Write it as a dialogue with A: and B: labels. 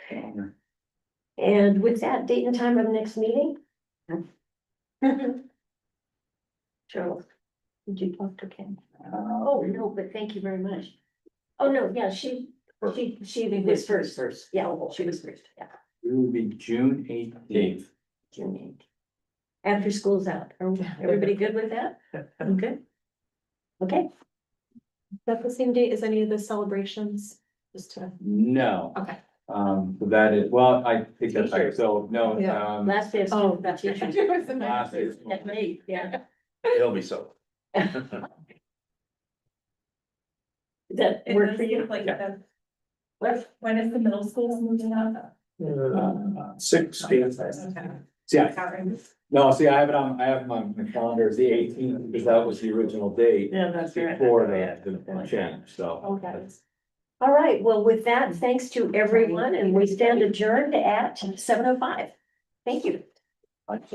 A: And with that, date and time of next meeting? Cheryl, did you talk to Ken? Oh, no, but thank you very much. Oh, no, yeah, she, she, she was first,
B: first.
A: yeah, she was first, yeah,
C: It will be June eighteenth.
A: June eighth. After school's out, are everybody good with that?
B: I'm good.
A: Okay,
D: that the same date as any of the celebrations? Just to,
C: No,
D: okay.
C: um, so that is, well, I think that's right,
B: Teachers.
C: so, no,
D: Yeah.
C: um,
A: last day of
D: Oh,
A: school, that's teachers.
C: last is.
A: At eight, yeah,
E: It'll be so.
A: Does that
F: It
A: work
F: does
A: for you?
F: look like
C: Yeah.
F: that.
A: What?
F: When is the middle school moving up?
C: Sixteenth.
F: Okay.
C: Uh, Yeah,
F: Karen.
C: no, see, I have it on, I have my my calendar as the eighteenth, because that was the original date
B: Yeah, that's right.
C: before the, the change, so.
D: Okay.
A: All right, well, with that, thanks to everyone, and we stand adjourned at seven oh five. Thank you.